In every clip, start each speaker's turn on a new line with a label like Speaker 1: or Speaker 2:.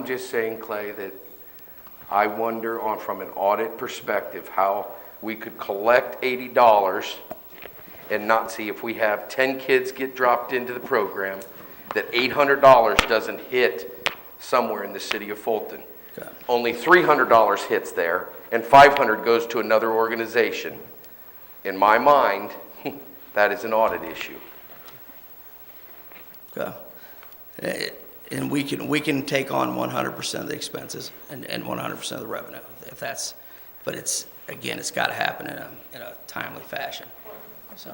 Speaker 1: I'm just saying, Clay, that I wonder on, from an audit perspective, how we could collect eighty dollars and not see if we have ten kids get dropped into the program, that eight hundred dollars doesn't hit somewhere in the city of Fulton. Only three hundred dollars hits there, and five hundred goes to another organization. In my mind, that is an audit issue.
Speaker 2: Okay. Eh, Uh, And we can, we can take on 100% of the expenses and, and 100% of the revenue, if that's, but it's, again, it's got to happen in a, in a timely fashion. So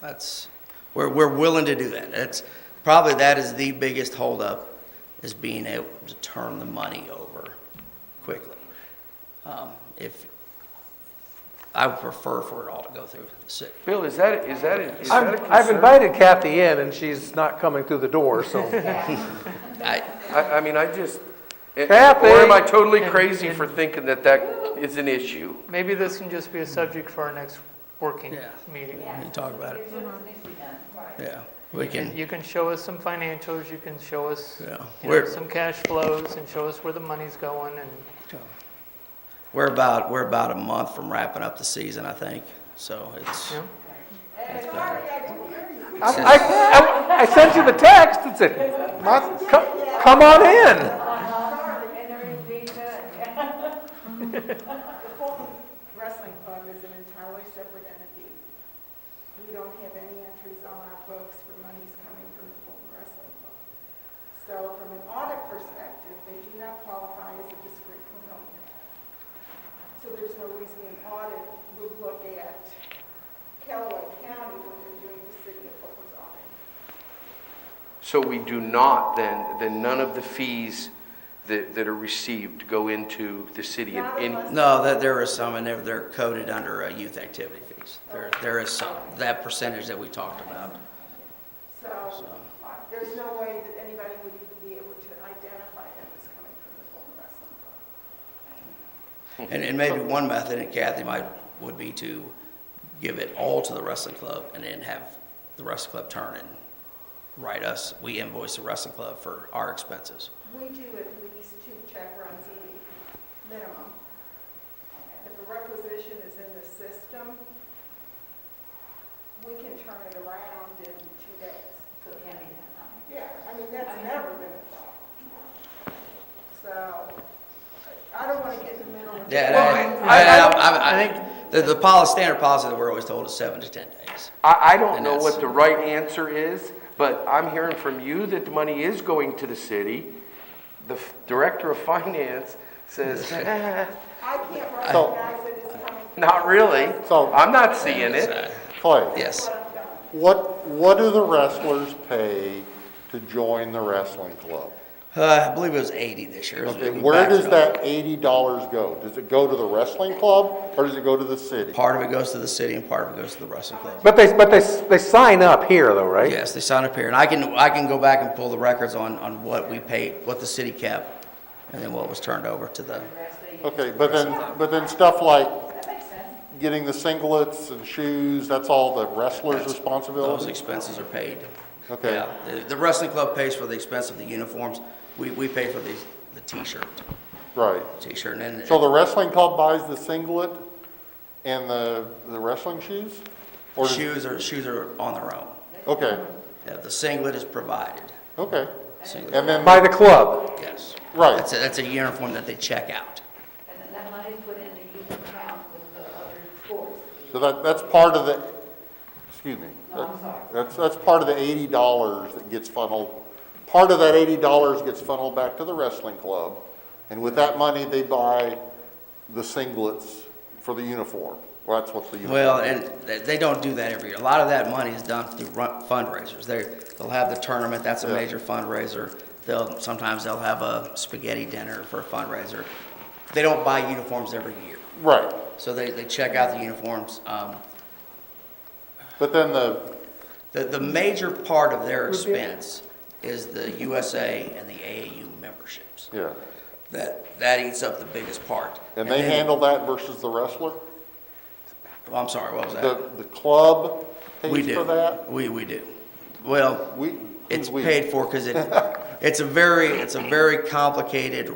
Speaker 2: that's, we're, we're willing to do that. That's, probably that is the biggest holdup, is being able to turn the money over quickly. Um, If, I would prefer for it all to go through the city.
Speaker 1: Bill, is that, is that, is that a
Speaker 3: I've
Speaker 1: concern?
Speaker 3: I've invited Kathy in, and she's not coming through the door, so.
Speaker 2: I,
Speaker 1: I, I mean, I just, or
Speaker 3: Kathy!
Speaker 1: am I totally crazy for thinking that that is an issue?
Speaker 4: Maybe this can just be a subject for our next working
Speaker 2: Yeah.
Speaker 4: meeting.
Speaker 2: we can talk about it. Yeah, we can.
Speaker 4: You can show us some financials, you can show us
Speaker 2: Yeah.
Speaker 4: you know,
Speaker 2: We're-
Speaker 4: some cash flows and show us where the money's going and
Speaker 2: We're about, we're about a month from wrapping up the season, I think, so it's.
Speaker 4: Yeah.
Speaker 2: it's better.
Speaker 3: I- I I- I sent you the text, it said, "Ma- co- come on in.
Speaker 5: And there is being none. The Fulton Wrestling Club is an entirely separate entity. We don't have any entries on our books for monies coming from the Fulton Wrestling Club. So from an audit perspective, they do not qualify as a discrete component. So there's no reason an audit would look at Callaway County when they're doing the city of Fulton's audit.
Speaker 1: So we do not, then, then none of the fees that, that are received go into the city in
Speaker 5: Not
Speaker 1: any,
Speaker 5: unless-
Speaker 2: No, that there is some, and they're, they're coded under uh, youth activity fees. There, there is some, that percentage that we talked about.
Speaker 5: So uh, there's no way that anybody would even be able to identify that as coming from the Fulton Wrestling Club.
Speaker 2: And, and maybe one method, and Kathy might, would be to give it all to the wrestling club and then have the wrestling club turn and write us, we invoice the wrestling club for our expenses.
Speaker 5: We do at least two check runs a week, minimum. If a requisition is in the system, we can turn it around in two days. So it can be done. Yeah, I mean, that's never been a problem. So I I don't want to get in the middle of.
Speaker 2: Yeah, and
Speaker 1: Well,
Speaker 2: I,
Speaker 1: I-
Speaker 2: and I- I,
Speaker 4: I
Speaker 2: I think, the, the policy, standard policy that we're always told is seven to ten days.
Speaker 1: I, I don't know
Speaker 2: And
Speaker 1: what
Speaker 2: that's-
Speaker 1: the right answer is, but I'm hearing from you that the money is going to the city. The f- director of finance says, "Eh,
Speaker 5: I can't recognize that it's coming from.
Speaker 1: not really.
Speaker 6: So-
Speaker 1: I'm not seeing it.
Speaker 6: Clay,
Speaker 2: Yes.
Speaker 6: what, what do the wrestlers pay to join the wrestling club?
Speaker 2: Uh, I believe it was 80 this year.
Speaker 6: Okay,
Speaker 2: We
Speaker 6: where
Speaker 2: backed it
Speaker 6: does
Speaker 2: up.
Speaker 6: that eighty dollars go? Does it go to the wrestling club or does it go to the city?
Speaker 2: Part of it goes to the city and part of it goes to the wrestling club.
Speaker 3: But they, but they, they sign up here, though, right?
Speaker 2: Yes, they sign up here, and I can, I can go back and pull the records on, on what we paid, what the city kept, and then what was turned over to the,
Speaker 6: Okay, but then, but then stuff like getting the singlets and shoes, that's all the wrestler's
Speaker 2: those
Speaker 6: responsibility?
Speaker 2: expenses are paid.
Speaker 6: Okay.
Speaker 2: Yeah, the- the wrestling club pays for the expense of the uniforms, we, we pay for the, the t-shirt,
Speaker 6: Right.
Speaker 2: t-shirt, and then.
Speaker 6: So the wrestling club buys the singlet and the, the wrestling shoes? Or does-
Speaker 2: Shoes are, shoes are on their own.
Speaker 6: Okay,
Speaker 2: Yeah, The singlet is provided,
Speaker 6: okay.
Speaker 2: singlet.
Speaker 6: And then,
Speaker 3: By the club.
Speaker 2: Yes.
Speaker 6: Right.
Speaker 2: That's a, that's a uniform that they check out.
Speaker 7: And then that money's put in the youth account with the other sports.
Speaker 6: so that, that's part of the, excuse me.
Speaker 7: No, I'm sorry.
Speaker 6: That's, that's part of the eighty dollars that gets funneled, part of that eighty dollars gets funneled back to the wrestling club, and with that money, they buy the singlets for the uniform. Well, that's what the uniform.
Speaker 2: Well, and they- they don't do that every year. A lot of that money is done through run- fundraisers. They, they'll have the tournament, that's a
Speaker 6: Yeah.
Speaker 2: major fundraiser. They'll, sometimes they'll have a spaghetti dinner for a fundraiser. They don't buy uniforms every year.
Speaker 6: Right,
Speaker 2: So they, they check out the uniforms. Um,
Speaker 6: but then the,
Speaker 2: the, the major part of their expense is the USA and the AAU memberships.
Speaker 6: yeah,
Speaker 2: That, that eats up the biggest part.
Speaker 6: and they
Speaker 2: then-
Speaker 6: handle that versus the wrestler?
Speaker 2: Well, I'm sorry, what was that?
Speaker 6: The, the club
Speaker 2: We
Speaker 6: pays
Speaker 2: do.
Speaker 6: for that?
Speaker 2: We, we do. Well,
Speaker 6: We,
Speaker 2: It's
Speaker 6: who's we?
Speaker 2: paid for because it, it's a very, it's a very complicated